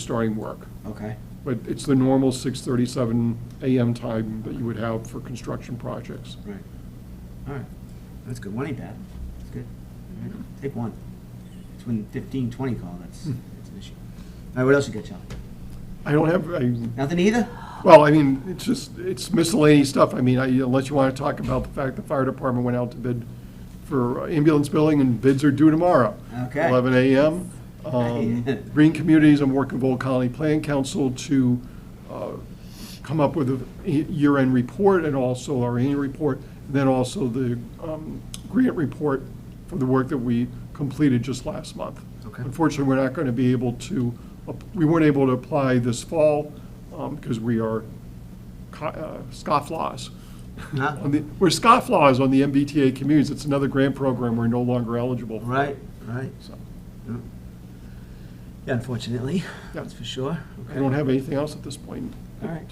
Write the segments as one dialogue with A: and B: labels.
A: starting work.
B: Okay,
A: But it's the normal 6:37 AM time that you would have for construction projects.
B: right. All right, that's good. One ain't bad. That's good. All right, Take one. It's when fifteen, twenty call, that's,
A: Hmm.
B: that's an issue. All right, what else you got, Charlie?
A: I don't have, I,
B: Nothing either?
A: well, I mean, it's just, it's miscellaneous stuff. I mean, I- unless you want to talk about the fact the fire department went out to bid for ambulance billing and bids are due tomorrow.
B: Okay.
A: 11 AM. Um, Green Communities, I'm working with Old Colony Plan Council to uh, come up with a year-end report and also our annual report, and then also the um, grant report for the work that we completed just last month.
B: Okay.
A: Unfortunately, we're not going to be able to, we weren't able to apply this fall um, because we are co- uh, scofflaws.
B: Huh?
A: On the- We're scofflaws on the MBTA communities. It's another grant program we're no longer eligible for.
B: Right, right.
A: So.
B: Yeah, Unfortunately, that's for sure.
A: I
B: Okay.
A: don't have anything else at this point.
B: All right.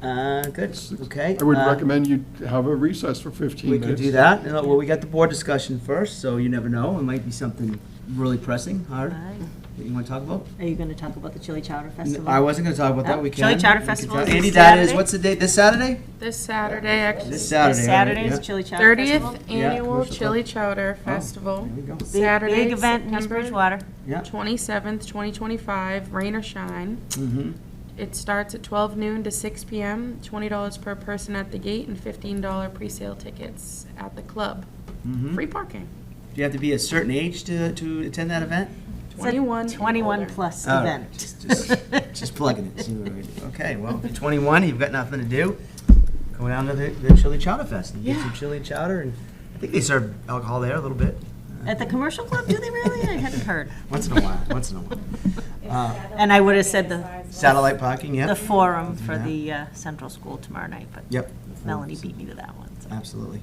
B: Uh, good, okay.
A: I would
B: uh,
A: recommend you have a recess for 15
B: We
A: minutes.
B: could do that. You know, Well, we got the board discussion first, so you never know. It might be something really pressing, hard,
C: Right.
B: that you want to talk about.
C: Are you going to talk about the Chili Chowder Festival?
B: I wasn't gonna talk about that,
C: No.
B: we can.
C: Chili Chowder
B: We can
C: Festival
B: talk-
C: is
B: Andy,
C: this
B: that is,
C: Saturday?
B: what's the date, this Saturday?
D: This Saturday, actually.
B: This Saturday.
C: This
B: all right,
C: Saturday's
B: yeah.
C: Chili Chowder Festival.
D: 30th
B: Yeah,
D: Annual
B: commercial
D: Chili Chowder
B: Oh.
D: Festival.
B: There we go.
C: Big-
D: Saturday,
C: Big event in East
D: September
C: Bridgewater.
B: Yeah,
D: 27th, 2025, rain or shine.
B: mhm,
D: It starts at 12 noon to 6 PM, $20 per person at the gate and $15 presale tickets at the club.
B: mhm. Do
D: Free parking.
B: you have to be a certain age to, to attend that event?
C: It's a
D: 21 and
C: 21
D: older.
C: plus
B: All right,
C: event.
B: Oh, just- just- Just plugging it, see what we do. Okay, well, if you're twenty-one, you've got nothing to do, go down to the, the Chili Chowder Fest and get some chili chowder, and I think they serve alcohol there a little bit,
C: At the commercial club, do they really? I hadn't heard.
B: once in a while, once in a while. Uh,
C: And I would have said the,
B: Satellite parking, yeah.
C: the forum for the uh, central school tomorrow night, but
B: Yep.
C: Melanie beat me to that one. so.
B: Absolutely.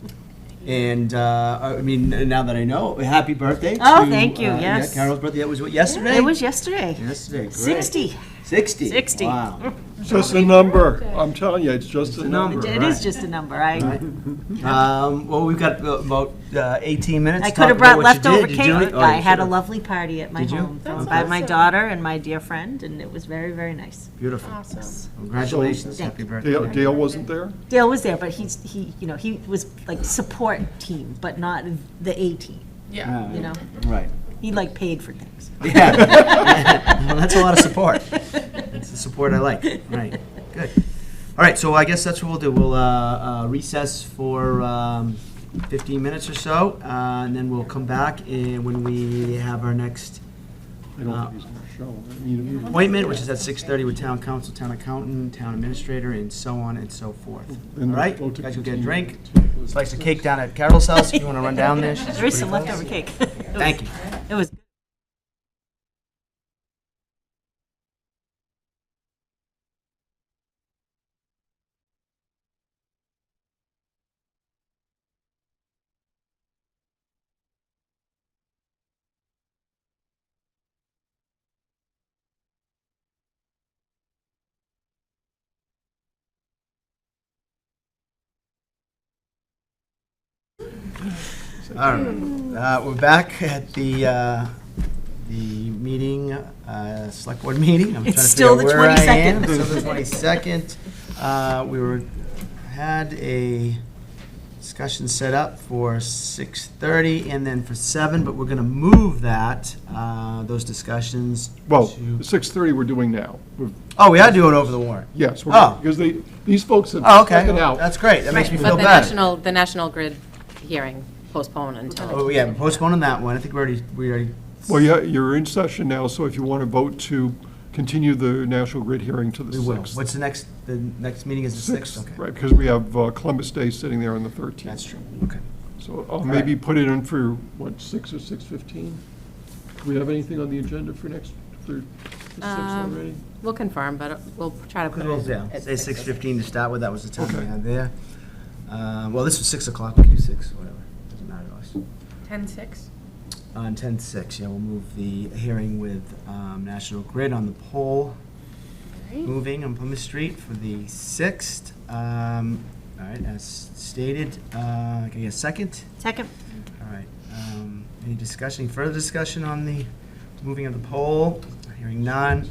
B: And uh, I mean, now that I know, happy birthday!
C: Oh,
B: to,
C: thank you,
B: uh,
C: yes.
B: yeah, Carol's birthday. That was what yesterday.
C: It was yesterday.
B: yesterday. Great.
C: 60.
B: 60.
C: 60.
B: Wow.
A: Just a number. I'm telling you, it's just a number.
C: It is just a number. I,
B: Um, well, we've got about uh, 18 minutes.
C: I
B: to
C: could
B: talk about
C: have brought
B: what you did.
C: leftover
B: Did you do
C: cake.
B: it? Oh,
C: I
B: you
C: had a
B: should've.
C: lovely party at my
B: Did you?
C: home
D: That's
C: by my
D: awesome.
C: daughter and my dear friend, and it was very, very nice.
B: Beautiful.
D: Awesome.
B: Congratulations.
C: Thank
B: Happy birthday.
A: Dale Dale wasn't there?
C: Dale was there, but he's, he, you know, he was like support team, but not the A team,
D: Yeah.
C: you know?
B: Right.
C: He like paid for things.
B: Yeah. well, that's a lot of support. That's the support I like. Right. Good. All right. So I guess that's what we'll do. We'll uh, uh, recess for um, 15 minutes or so, uh, and then we'll come back and when we have our next
A: I
B: Uh,
A: don't think he's going to show. I mean,
B: appointment, which is at 6:30 with town council, town accountant, town administrator, and so on and so forth. All
A: and
B: right.
A: vote to
B: guys, will get a
A: continue.
B: drink. Slice of cake down at Carol's house. If you want to run down there, she's
C: There is some
B: pretty
C: leftover
B: close.
C: cake.
B: Thank you.
C: It was
B: All right, Uh, we're back at the, uh, the meeting, uh, select board meeting. I'm trying
C: It's
B: to
C: still
B: figure out
C: the
B: where I am.
C: 22nd.
B: It's Still the 22nd. Uh, We were, had a discussion set up for 6:30 and then for 7, but we're going to move that, uh, those discussions
A: Well,
B: to-
A: 6:30 we're doing now. We're-
B: Oh, we are doing over the warrant.
A: Yes,
B: Oh.
A: we're- because they, these folks have
B: Oh, okay.
A: taken out.
B: That's great. That makes me
E: But
B: feel
E: the
B: better.
E: national, the National Grid hearing postponed until,
B: Oh, yeah, we're postponing that one. I think we already, we already
A: Well, yeah, you're in session now, so if you want to vote to continue the National Grid hearing to the
B: We will.
A: 6th.
B: What's the next, the next meeting is the 6th? Okay.
A: Right, because we have uh, Columbus Day sitting there on the 13th.
B: That's true. Okay.
A: So I'll maybe put it in for, what, six or six fifteen? Do we have anything on the agenda for next, for six
E: Um,
A: already?
E: we'll confirm, but we'll try to put it in.
B: Yeah,
E: at
B: say 6:15 to start with, that was the time we
A: Okay.
B: had there. Uh, Well, this was 6 o'clock, we could do 6, whatever, doesn't matter to us. Uh,
D: 10:06.
B: On 10:06, yeah, we'll move the hearing with um, National Grid on the pole moving on Plymouth Street for the 6th. Um, All right, as stated, uh, can I get a second?
C: second,
B: All right, um, any discussion, any further discussion on the moving of the poll? Hearing none,